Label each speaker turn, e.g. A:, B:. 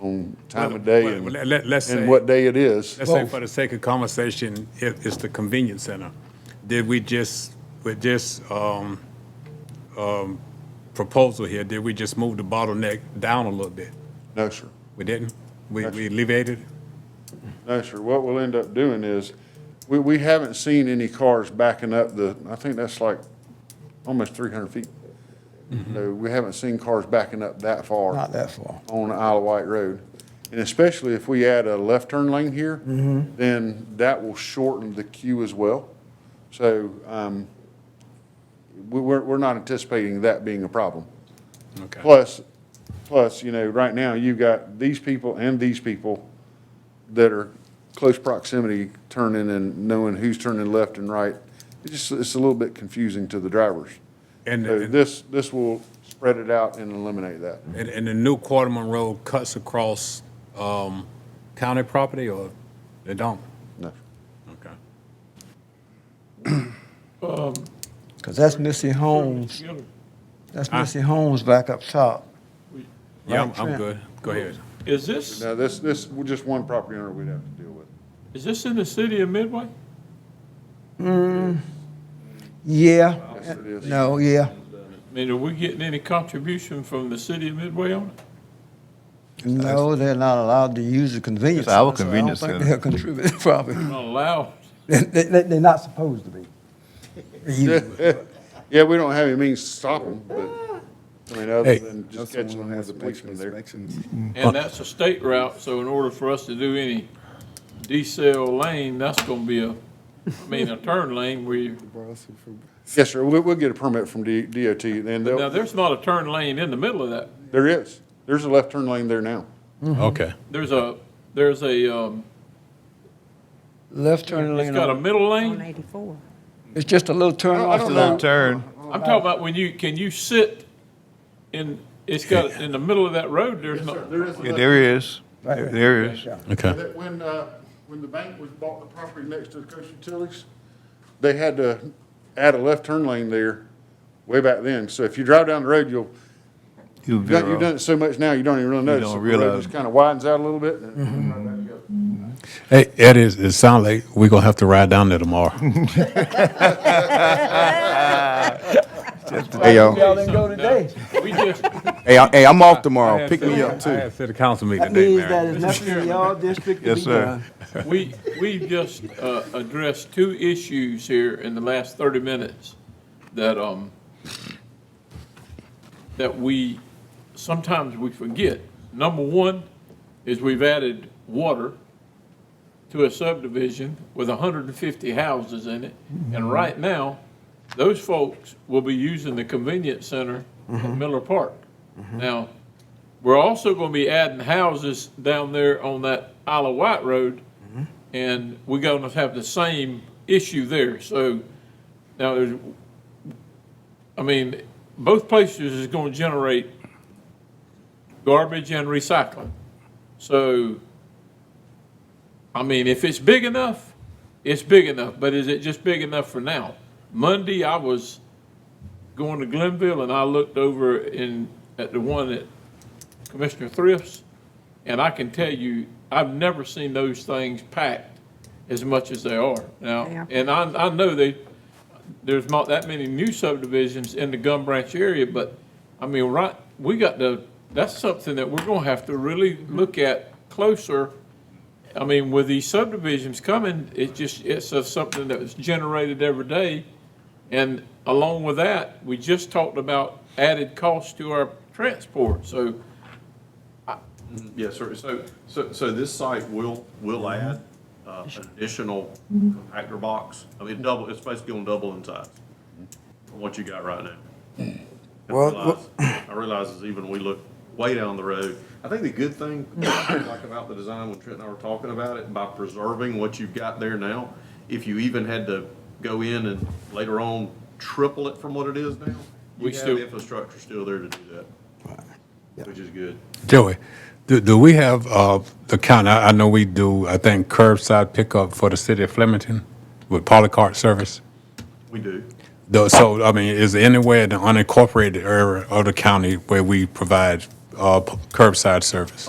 A: on time of day
B: Well,
A: and,
B: let- let- let's say-
A: and what day it is.
B: Let's say for the sake of conversation, it, it's the convenience center. Did we just, with this, um, um, proposal here, did we just move the bottleneck down a little bit?
A: No, sir.
B: We didn't? We, we alleviated? it?
A: No, sir. What we'll end up doing is, we, we haven't seen any cars backing up the, I think that's like almost three hundred feet.
B: Mm-hmm.
A: So we haven't seen cars backing up that far.
C: Not that far.
A: on Isle of Wight Road. And especially if we add a left turn lane here, then that will shorten the queue as well. So um, we- we're, we're not anticipating that being a problem.
B: Okay.
A: Plus, plus, you know, right now, you've got these people and these people that are close proximity turning and knowing who's turning left and right. It's just, it's a little bit confusing to the drivers.
B: And-
A: So this, this will spread it out and eliminate that.
B: And, and the new Quarterman Road cuts across, um, county property or they don't?
A: No.
B: Okay.
C: Because that's Missy Holmes.
D: Mr. Gillum,
C: That's Missy Holmes back up top.
B: Yeah, I'm,
C: Right,
B: I'm
C: Trent.
B: good. Go ahead.
D: Is this,
A: Now, this, this, we're just one property owner we'd have to deal with.
D: is this in the city of Midway?
C: Yeah.
A: Yes, it is.
C: No, yeah.
D: I mean, are we getting any contribution from the city of Midway on it?
C: No, they're not allowed to use the convenience.
E: It's our
C: center, so
E: convenience
C: I don't
E: center.
C: think they'll contribute, probably.
D: Not allowed.
C: They, they, they're not supposed to be.
A: Yeah, we don't have any means to stop them, but, I mean, other
F: Hey.
A: than just catching them with the policeman there.
D: And that's a state route, so in order for us to do any decel lane, that's gonna be a, I mean, a turn lane where you,
A: Yes, sir, we'll, we'll get a permit from D- DOT, and
D: now,
A: they'll,
D: there's not a turn lane in the middle of that.
A: there is, there's a left turn lane there now.
F: Okay.
D: There's a, there's a, um,
C: Left turn
D: it's
C: lane,
D: got a
C: on-
D: middle lane.
G: 184.
C: it's just a little turn
A: I
C: off
A: don't
C: to
A: know.
C: the,
E: Turn.
D: I'm talking about when you, can you sit in, it's got, in the middle of that road, there's not.
E: Yeah, there is. There
C: Right.
E: there is.
F: Okay.
A: When, uh, when the bank was bought the property next to the Coast Utilities, they had to add a left turn lane there way back then, so if you drive down the road, you'll,
E: You
A: you've done- you've done
E: veer
A: it so much now, you don't even really notice.
E: don't
A: The road
E: realize.
A: Just kind of widens out a little bit, and it's right back together.
F: Hey, it is, it sounds like we're gonna have to ride down there tomorrow.
H: Hey, y'all.
C: y'all didn't go today.
D: We just,
H: Hey, I, hey, I'm off tomorrow. Pick me up
B: I
H: too.
B: had city council meeting
C: That
B: today,
C: means that
B: Mayor.
C: is nothing in y'all district to
E: Yes,
C: be
E: sir.
C: done.
D: We, we've just uh, addressed two issues here in the last 30 minutes that, um, that we, sometimes we forget. Number one is we've added water to a subdivision with 150 houses in it. And right now, those folks will be using the convenience center at Miller Park. Now, we're also going to be adding houses down there on that Isle of Wight Road, and we're going to have the same issue there. So now, there's, I mean, both places is going to generate garbage and recycling. So, I mean, if it's big enough, it's big enough, but is it just big enough for now? Monday, I was going to Glenville and I looked over in, at the one at Commissioner Thrift's, and I can tell you, I've never seen those things packed as much as they are
G: Yeah.
D: now. And I, I know they, there's not that many new subdivisions in the Gum Branch area, but, I mean, right, we got the, that's something that we're gonna have to really look at closer. I mean, with these subdivisions coming, it just, it's a- something that's generated every day. And along with that, we just talked about added cost to our transport, so,
I: Yes, sir. So, so, so this site will, will add uh, an additional compactor box. I mean, double, it's basically gonna double in size from what you got right now. I
C: Well,
I: realize- I realize is even we look way down the road. I think the good thing, like about the design, when Trent and I were talking about it, by preserving what you've got there now, if you even had to go in and later on triple it from what it is now,
D: We
I: we have
D: still-
I: the infrastructure still there to do that, which is good.
F: Joey, do, do we have, uh, the county, I, I know we do, I think curbside pickup for the city of Flemington with polycart service?
I: We do.
F: Though, so, I mean, is there anywhere in the unincorporated area of the county where we provide, uh, p- curbside service?